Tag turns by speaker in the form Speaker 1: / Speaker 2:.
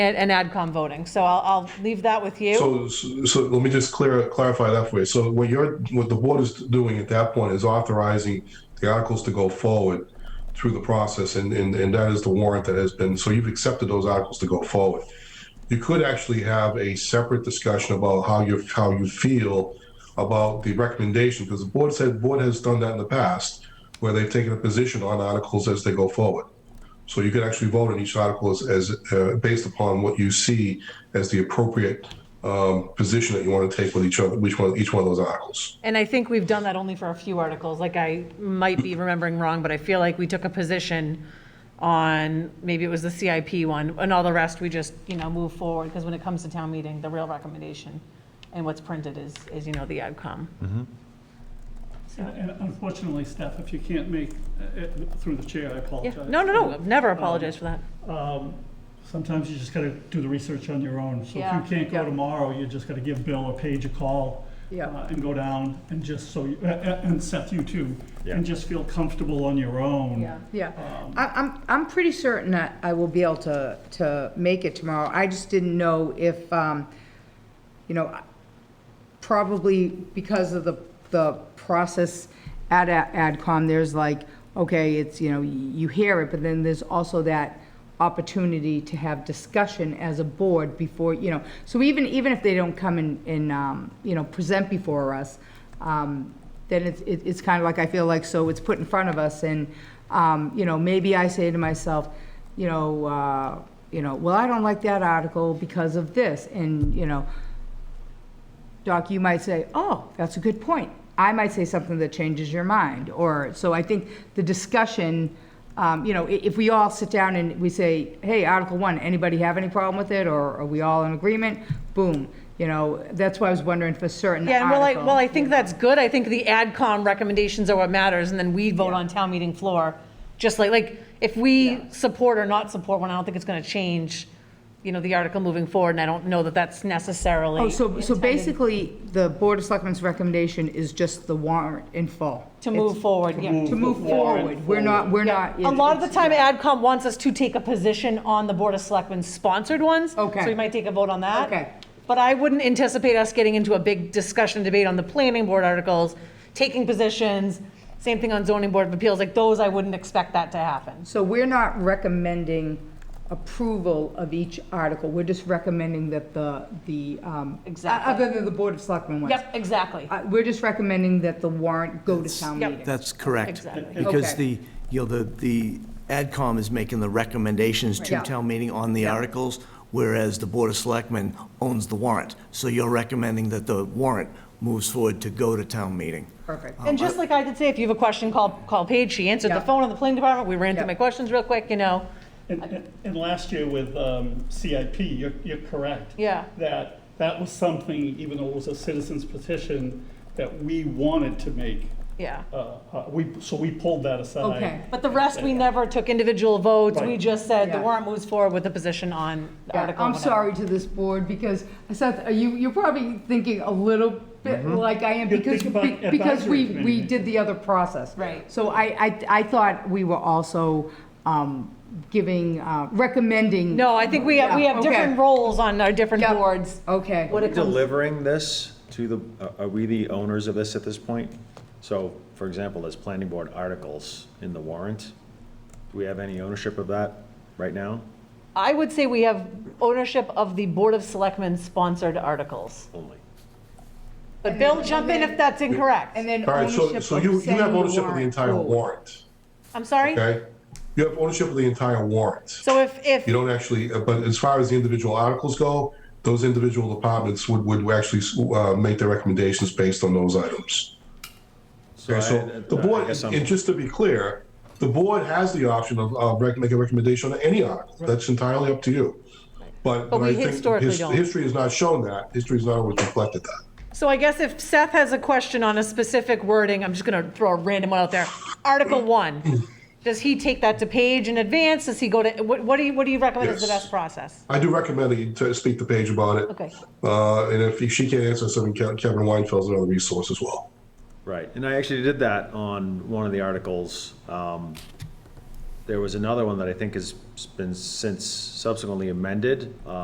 Speaker 1: and, and AdCom voting. So I'll, I'll leave that with you.
Speaker 2: So, so let me just clear, clarify that for you. So what you're, what the board is doing at that point is authorizing the articles to go forward through the process, and, and, and that is the warrant that has been, so you've accepted those articles to go forward. You could actually have a separate discussion about how you, how you feel about the recommendation, because the board said, board has done that in the past, where they've taken a position on articles as they go forward. So you could actually vote on each article as, as uh, based upon what you see as the appropriate um, position that you want to take with each other, which one, each one of those articles.
Speaker 1: And I think we've done that only for a few articles, like I might be remembering wrong, but I feel like we took a position on, maybe it was the CIP one, and all the rest, we just, you know, move forward, because when it comes to town meeting, the real recommendation and what's printed is, is, you know, the AdCom.
Speaker 3: And unfortunately, Steph, if you can't make, uh, it- through the chair, I
Speaker 1: Yeah,
Speaker 3: apologize.
Speaker 1: no, no, no, never apologize for that.
Speaker 3: Sometimes you just gotta do the research on your own. So
Speaker 1: Yeah,
Speaker 3: if you can't
Speaker 1: yeah.
Speaker 3: go tomorrow, you just gotta give Bill or Paige a call.
Speaker 1: Yeah.
Speaker 3: uh, And go down and just so, you- uh, uh, and Seth, you too.
Speaker 4: Yeah.
Speaker 3: And just feel comfortable on your own.
Speaker 5: Yeah, I, I'm, I'm pretty certain that I will be able to, to make it tomorrow. I just didn't know if, um, you know, probably because of the, the process at a- AdCom, there's like, okay, it's, you know, you hear it, but then there's also that opportunity to have discussion as a board before, you know, so even, even if they don't come and, and, um, you know, present before us, um, then it's, it- it's kind of like, I feel like, so it's put in front of us, and, um, you know, maybe I say to myself, you know, uh, you know, well, I don't like that article because of this, and, you know, Doc, you might say, oh, that's a good point. I might say something that changes your mind, or, so I think the discussion, um, you know, i- if we all sit down and we say, hey, Article One, anybody have any problem with it, or are we all in agreement? Boom, you know, that's why I was wondering for certain
Speaker 1: Yeah, and well, I,
Speaker 5: articles.
Speaker 1: well, I think that's good. I think the AdCom recommendations are what matters, and then we vote on town meeting floor, just like, like, if we support or not support one, I don't think it's gonna change, you know, the article moving forward, and I don't know that that's necessarily.
Speaker 5: Oh, so, so
Speaker 1: intended
Speaker 5: basically, the Board of Selectmen's recommendation is just the warrant in full?
Speaker 1: To move
Speaker 5: It's-
Speaker 1: forward, yeah.
Speaker 5: To move forward, we're not, we're not.
Speaker 1: A lot of the time, AdCom wants us to take a position on the Board of Selectmen sponsored ones.
Speaker 5: Okay.
Speaker 1: So we might take a vote on that.
Speaker 5: Okay.
Speaker 1: But I wouldn't anticipate us getting into a big discussion debate on the planning board articles, taking positions, same thing on zoning board of appeals, like those, I wouldn't expect that to happen.
Speaker 5: So we're not recommending approval of each article, we're just recommending that the, the. um,
Speaker 1: Exactly.
Speaker 5: Other than the Board of Selectmen ones.
Speaker 1: Yep, exactly,
Speaker 5: Uh, We're just recommending that the warrant go to town
Speaker 1: Yep.
Speaker 5: meeting.
Speaker 6: That's correct.
Speaker 1: Exactly.
Speaker 6: Because
Speaker 5: Okay.
Speaker 6: the, you know, the, the AdCom is making the recommendations to
Speaker 5: Yeah.
Speaker 6: town meeting on the
Speaker 5: Yeah.
Speaker 6: articles, whereas the Board of Selectmen owns the warrant. So you're recommending that the warrant moves forward to go to town meeting.
Speaker 5: Perfect.
Speaker 3: Uh,
Speaker 1: and just like I did say, if you have a question, call, call Paige, she answered the
Speaker 5: Yeah.
Speaker 1: phone on the planning department, we ran through
Speaker 5: Yeah.
Speaker 1: my questions real quick, you know,
Speaker 3: And, and- and last year with um, CIP, you're, you're correct.
Speaker 1: Yeah.
Speaker 3: That, that was something, even though it was a citizen's petition, that we wanted to make.
Speaker 1: yeah.
Speaker 3: uh, uh, We, so we pulled that aside.
Speaker 5: Okay.
Speaker 1: But the rest, we never took individual votes, we
Speaker 3: Right.
Speaker 1: just said the
Speaker 5: Yeah.
Speaker 1: warrant moves forward with the position on the
Speaker 5: Yeah,
Speaker 1: article.
Speaker 5: I'm
Speaker 3: oh.
Speaker 1: whatever.
Speaker 5: sorry to this board, because Seth, are you, you're probably thinking a little bit like I am,
Speaker 3: You
Speaker 5: because,
Speaker 3: think Mm-hmm. about
Speaker 5: be- because we,
Speaker 3: advisory
Speaker 5: we
Speaker 3: committee.
Speaker 5: did the other process.
Speaker 1: Right.
Speaker 5: So I, I, I thought we were also um, giving, uh, recommending.
Speaker 1: No, I think we have, we
Speaker 5: Yeah,
Speaker 1: have
Speaker 5: okay.
Speaker 1: different roles on our different
Speaker 5: Yep.
Speaker 1: boards.
Speaker 5: Okay.
Speaker 1: What it comes,
Speaker 4: Delivering this to the, uh, are- are we the owners of this at this point? So, for example, there's planning board articles in the warrant. Do we have any ownership of that right now?
Speaker 1: I would say we have ownership of the Board of Selectmen sponsored articles.
Speaker 4: Only.
Speaker 1: But Bill, jump in if that's incorrect.
Speaker 5: And then
Speaker 2: All right, so,
Speaker 5: ownership
Speaker 2: so
Speaker 5: of
Speaker 2: you, you
Speaker 5: saying
Speaker 2: have ownership of the
Speaker 5: warrant.
Speaker 2: entire
Speaker 5: Cool.
Speaker 2: warrant,
Speaker 1: I'm sorry?
Speaker 2: okay? You have ownership of the entire warrant.
Speaker 1: So if,
Speaker 2: You
Speaker 1: if,
Speaker 2: don't actually, uh, but as far as the individual articles go, those individual departments would, would actually, uh, make their recommendations based on those items. Okay,
Speaker 4: I-
Speaker 2: so the
Speaker 4: uh, I
Speaker 2: board,
Speaker 4: guess I'm-
Speaker 2: and just to be clear, the board has the option of, of rec- make a recommendation on any article. That's entirely up to you. But, but
Speaker 1: we
Speaker 2: I think
Speaker 1: historically
Speaker 2: his-
Speaker 1: don't.
Speaker 2: history has not shown that. History's not always reflected that.
Speaker 1: so I guess if Seth has a question on a specific wording, I'm just going to throw a random one out there. Article one, does he take that to Paige in advance? Does he go to, what, what do you, what do you recommend is the
Speaker 2: Yes.
Speaker 1: best process?
Speaker 2: I do recommend that you t- speak to Paige about it.
Speaker 1: Okay.
Speaker 2: Uh, and if she can't answer something, Ke- Kevin Weinfeld's another resource as well.
Speaker 4: Right, and I actually did that on one of the articles. um, There was another one that I think has been since subsequently amended, uh,